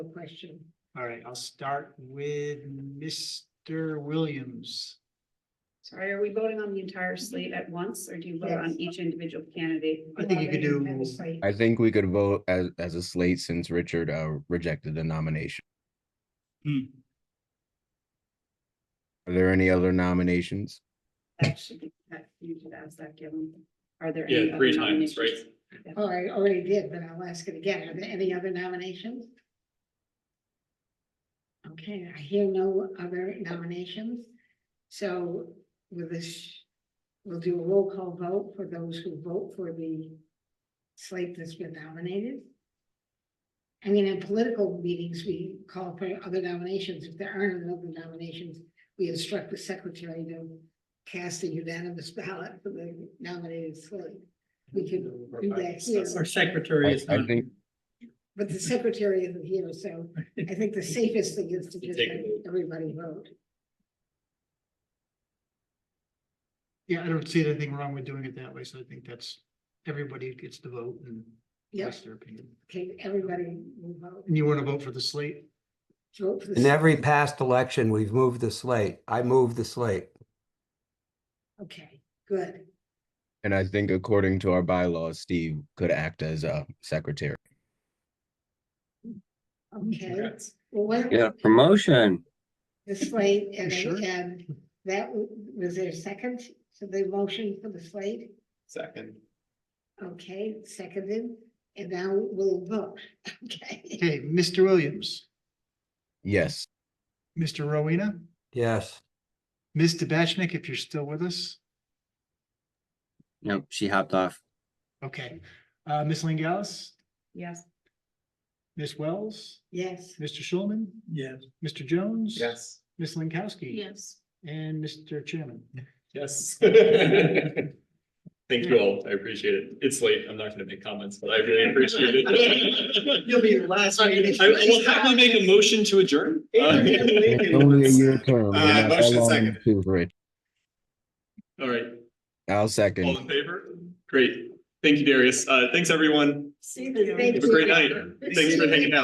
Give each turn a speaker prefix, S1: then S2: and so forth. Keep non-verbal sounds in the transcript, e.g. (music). S1: question.
S2: All right, I'll start with Mr. Williams.
S3: Sorry, are we voting on the entire slate at once, or do you vote on
S1: Yes.
S3: each individual candidate?
S2: I think you could do,
S4: I think we could vote as, as a slate since Richard, uh, rejected the nomination.
S2: Hmm,
S4: Are there any other nominations?
S3: That should be, that you should ask that, given. Are there? any
S5: Yeah,
S3: other
S5: three times, right?
S3: nominations?
S1: Oh, I already did, but I'll ask it again. Are there any other nominations? Okay, I hear no other nominations. So with this, we'll do a roll call vote for those who vote for the slate that's been nominated. I mean, in political meetings, we call for other nominations. If there aren't other nominations, we instruct the secretary to cast a unanimous ballot for the nominated slate. We could do that here.
S6: Our secretary
S4: I-
S6: is
S4: I
S6: not,
S4: think-
S1: But the secretary isn't here, so I think the safest thing is to
S5: You
S1: just
S5: take
S1: have
S5: a vote.
S1: everybody vote.
S2: Yeah, I don't see anything wrong with doing it that way, so I think that's, everybody gets to vote and
S1: Yes,
S2: voice their opinion.
S1: okay, everybody will vote.
S2: And you want to vote for the slate?
S1: Vote for the
S7: In every past election, we've moved the slate. I moved the slate.
S1: Okay, good.
S4: And I think according to our bylaws, Steve could act as a secretary.
S1: Okay. Well, what?
S8: Yeah, promotion.
S1: The slate and,
S2: sure?
S1: and that w- was there a second to the motion for the slate?
S5: Second.
S1: Okay, seconded, and now we'll vote, (laughs) okay?
S2: Okay, Mr. Williams,
S5: (laughs)
S4: Yes,
S2: Mr. Rowena,
S7: Yes.
S2: Ms. Tabashnik, if you're still with us.
S8: Nope, she hopped off.
S2: Okay, uh, Ms. Lingallis,
S3: Yes,
S2: Ms. Wells,
S1: Yes,
S2: Mr. Schulman,
S6: yes,
S2: Mr. Jones.
S5: Yes.
S2: Ms. Linkowski.
S3: yes.
S2: And Mr. Chairman.
S5: Yes. Thank you all. I appreciate it. It's late. I'm not gonna make comments, but I really appreciate it.
S2: (laughs) You'll be the last.
S5: I, I will happily make a motion to adjourn. (laughs)
S4: it's only a year term. We're
S5: Uh,
S4: not that
S5: motion
S4: long
S5: second.
S4: too, Rich.
S5: All right,
S4: I'll
S5: all
S4: second.
S5: in favor? Great. Thank you, Darius. Uh, thanks, everyone.
S3: See
S1: you.
S5: Have a great night. Thanks for hanging out.